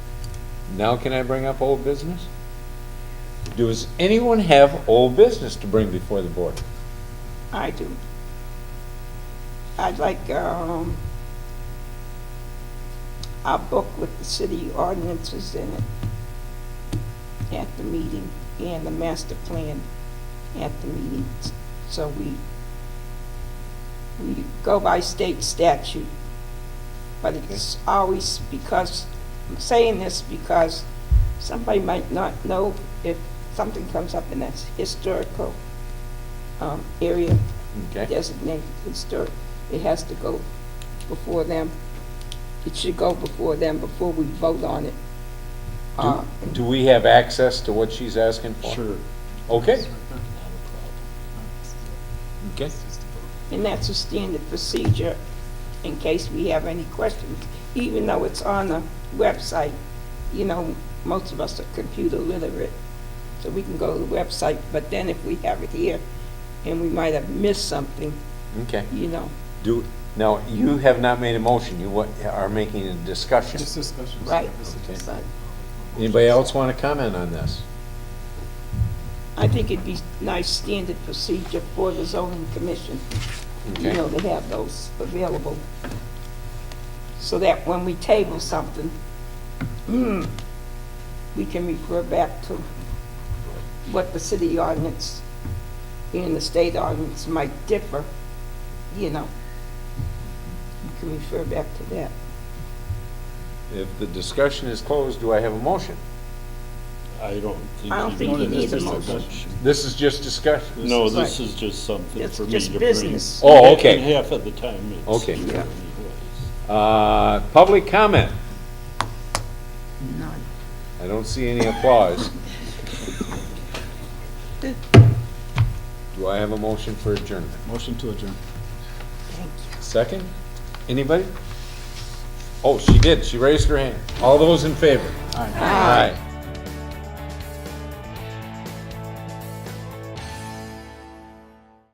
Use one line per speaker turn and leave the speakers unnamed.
Now can I bring up old business? Does anyone have old business to bring before the board?
I do. I'd like, um, a book with the city ordinances in it at the meeting, and the master plan at the meeting, so we, we go by state statute. But it's always because, I'm saying this because somebody might not know if something comes up in that historical, um, area
Okay,
designated historic, it has to go before them. It should go before them, before we vote on it. Uh,
do we have access to what she's asking for?
Sure.
Okay, okay,
And that's a standard procedure in case we have any questions. Even though it's on the website, you know, most of us are computer literate, so we can go to the website. But then if we have it here and we might have missed something,
okay.
you know,
Do, now, you have not made a motion, you wa- are making a discussion.
Just discussions.
right?
Okay.
But
Anybody else want to comment on this?
I think it'd be nice standard procedure for the zoning commission. you
Okay.
know, they have those available. So that when we table something, mm, we can refer back to what the city ordinance and the state ordinance might differ, you know. We can refer back to that.
If the discussion is closed, do I have a motion?
I don't think.
I don't think you need a motion.
This is just discussion.
No, this is just something
It's
for me to
just
bring.
business.
Oh, okay.
And half of the time it's.
Okay.
true
Yeah.
anyways.
Uh, public comment? I don't see any applause. Do I have a motion for adjournment?
Motion to adjourn.
Second? Anybody? Oh, she did, she raised her hand. All those in favor? Aye.